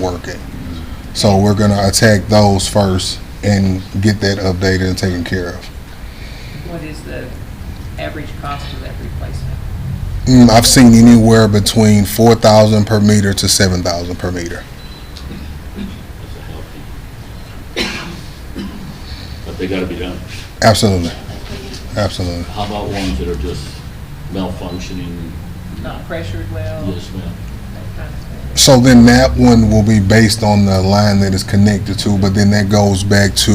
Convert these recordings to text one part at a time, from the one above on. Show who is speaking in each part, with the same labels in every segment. Speaker 1: working. So we're gonna attack those first and get that updated and taken care of.
Speaker 2: What is the average cost of that replacement?
Speaker 1: Mm, I've seen anywhere between four thousand per meter to seven thousand per meter.
Speaker 3: But they gotta be done.
Speaker 1: Absolutely, absolutely.
Speaker 3: How about ones that are just malfunctioning,
Speaker 2: Not pressured well,
Speaker 3: yes, ma'am?
Speaker 2: that kind of thing?
Speaker 1: So then that one will be based on the line that it's connected to, but then that goes back to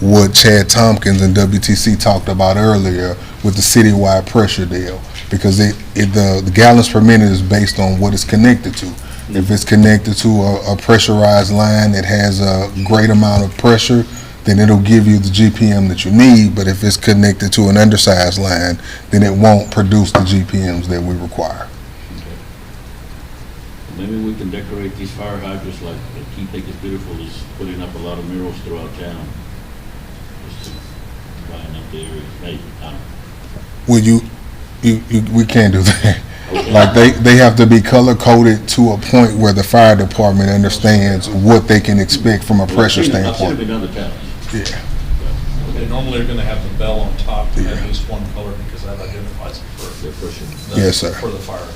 Speaker 1: what Chad Tompkins and WTC talked about earlier with the citywide pressure deal. Because it, it, the, the gallons per minute is based on what it's connected to. If it's connected to a, a pressurized line that has a great amount of pressure, then it'll give you the GPM that you need, but if it's connected to an undersized line, then it won't produce the GPMs that we require.
Speaker 3: Maybe we can decorate these fire hydrants like the Key Think is Beautiful is putting up a lot of murals throughout town. Just to line up the area, maybe, I
Speaker 1: Well, you, you, you, we can't do that.
Speaker 3: don't know.
Speaker 1: Like, they, they have to be color coded to a point where the fire department understands what they can expect from a pressure
Speaker 3: I've seen them
Speaker 1: standpoint.
Speaker 3: in other towns.
Speaker 1: Yeah.
Speaker 4: They normally are gonna have the bell on top to
Speaker 1: Yeah.
Speaker 4: at least one color because that identifies it for
Speaker 3: They're pushing.
Speaker 4: the.
Speaker 1: Yes, sir.
Speaker 4: For the fire.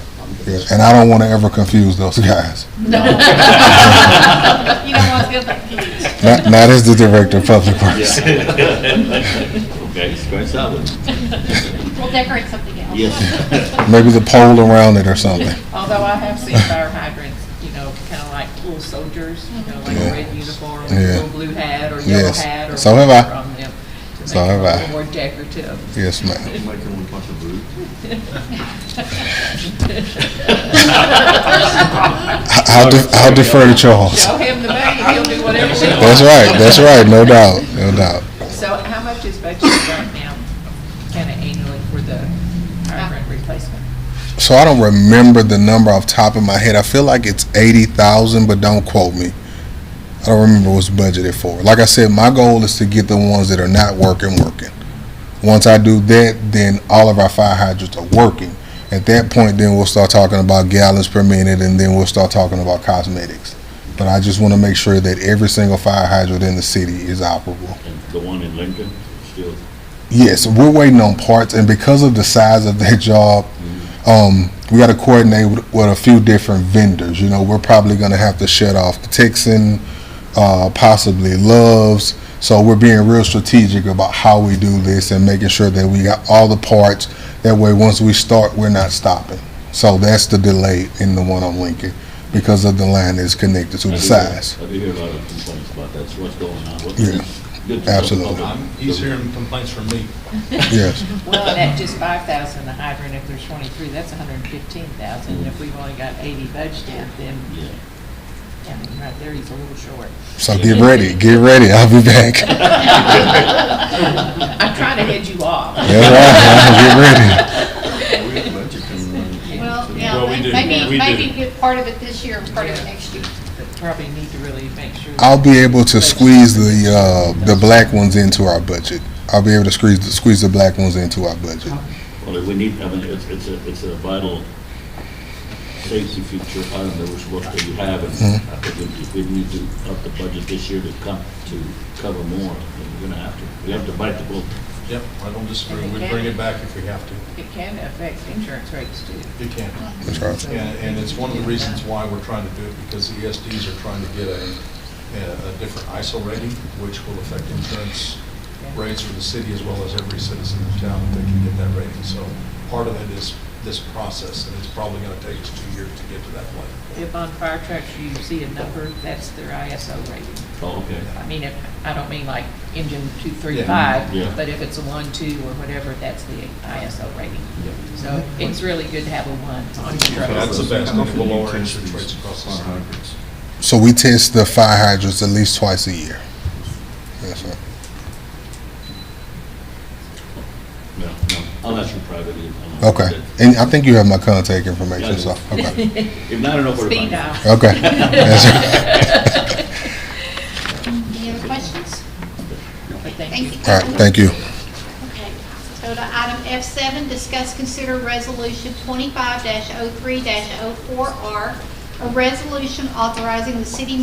Speaker 1: Yeah, And I don't want to ever confuse those guys.
Speaker 5: You don't want to feel confused.
Speaker 1: Not, not as the director of public works.
Speaker 3: Okay, scratch that one.
Speaker 5: We'll decorate something else.
Speaker 3: Yes.
Speaker 1: Maybe the pole around it or something.
Speaker 2: Although I have seen fire hydrants, you know, kind of like little soldiers, you know, like a red uniform, a
Speaker 1: Yeah.
Speaker 2: little blue hat or yellow
Speaker 1: Yes.
Speaker 2: hat or
Speaker 1: So have I.
Speaker 2: whatever on them. to
Speaker 1: So
Speaker 2: make it
Speaker 1: have I.
Speaker 2: A little more decorative.
Speaker 1: Yes, ma'am. I- I'll, de- I'll defer to Charles.
Speaker 2: Show him the money, he'll do whatever he wants.
Speaker 1: That's right, that's right, no doubt, no doubt.
Speaker 2: So how much is budgeted right now, kind of annually for the hydrant replacement?
Speaker 1: So I don't remember the number off the top of my head. I feel like it's eighty thousand, but don't quote me. I don't remember what's budgeted for. Like I said, my goal is to get the ones that are not working working. Once I do that, then all of our fire hydrants are working. At that point, then we'll start talking about gallons per minute, and then we'll start talking about cosmetics. But I just want to make sure that every single fire hydrant in the city is operable.
Speaker 3: And the one in Lincoln, still,
Speaker 1: Yes, we're waiting on parts, and because of the size of that job, um, we got to coordinate with, with a few different vendors. You know, we're probably going to have to shut off the Texan, uh, possibly Loves. So we're being real strategic about how we do this and making sure that we got all the parts. That way, once we start, we're not stopping. So that's the delay in the one on Lincoln because of the line that's connected to
Speaker 3: I
Speaker 1: the
Speaker 3: do
Speaker 1: size.
Speaker 3: hear- I do hear a lot of complaints about that, so what's going on? What's-
Speaker 1: Yeah,
Speaker 3: it's good for the
Speaker 1: absolutely.
Speaker 3: public.
Speaker 4: I'm, he's hearing complaints from me.
Speaker 1: Yes,
Speaker 2: Well, and at just five thousand, the hydrant, if there's twenty-three, that's hundred and fifteen thousand, and if we've only got eighty budgeted, then,
Speaker 3: Yeah.
Speaker 2: I mean, right there, he's a little short.
Speaker 1: so get ready, get ready. I'll be back.
Speaker 2: I'm trying to head you off.
Speaker 1: That's right.
Speaker 5: Well, yeah,
Speaker 4: Well, we do.
Speaker 5: maybe,
Speaker 4: We
Speaker 5: maybe
Speaker 4: do.
Speaker 5: get part of it this year and part of it next year.
Speaker 2: But Probably need to really make sure.
Speaker 1: I'll be able to squeeze the uh, the black ones into our budget. I'll be able to squeeze the, squeeze the black ones into our budget.
Speaker 3: Well, we need, I mean, it's, it's a, it's a vital safety feature item that we're supposed to have, and
Speaker 1: Mm-hmm.
Speaker 3: I think we, we need to up the budget this year to come, to cover more, and we're gonna have to, we have to bite the bullet.
Speaker 4: Yep, I don't disagree. We bring it back if we have to.
Speaker 2: It can affect insurance rates too.
Speaker 4: You can.
Speaker 1: That's right.
Speaker 4: And, and it's one of the reasons why we're trying to do it, because the ESDs are trying to get a, a a different ISO rating, which will affect insurance rates for the city as well as every citizen in town, if they can get that rating. So part of it is this process, and it's probably gonna take us two years to get to that point.
Speaker 2: If on fire trucks you see a number, that's their ISO rating.
Speaker 3: Oh, okay.
Speaker 2: I mean, if, I don't mean like engine two, three,
Speaker 4: Yeah,
Speaker 2: five,
Speaker 3: yeah.
Speaker 2: but if it's a one, two, or whatever, that's the ISO rating. So it's really good to have a one on your truck.
Speaker 4: That's the best, and it will lower interest rates across the state.
Speaker 1: So we test the fire hydrants at least twice a year. Yes, sir.
Speaker 3: No, no, I'll ask you privately. I don't know.
Speaker 1: Okay. And I think you have my contact information. So okay.
Speaker 3: If not, I don't know where to
Speaker 2: Speed
Speaker 3: find it.
Speaker 2: dial.
Speaker 1: Okay. That's right.
Speaker 5: Any other questions?
Speaker 2: But thank you.
Speaker 5: Thank you.
Speaker 1: All right. Thank you.
Speaker 5: Okay. So to item oh F7, discuss, consider resolution 25-03-04R, a resolution authorizing the city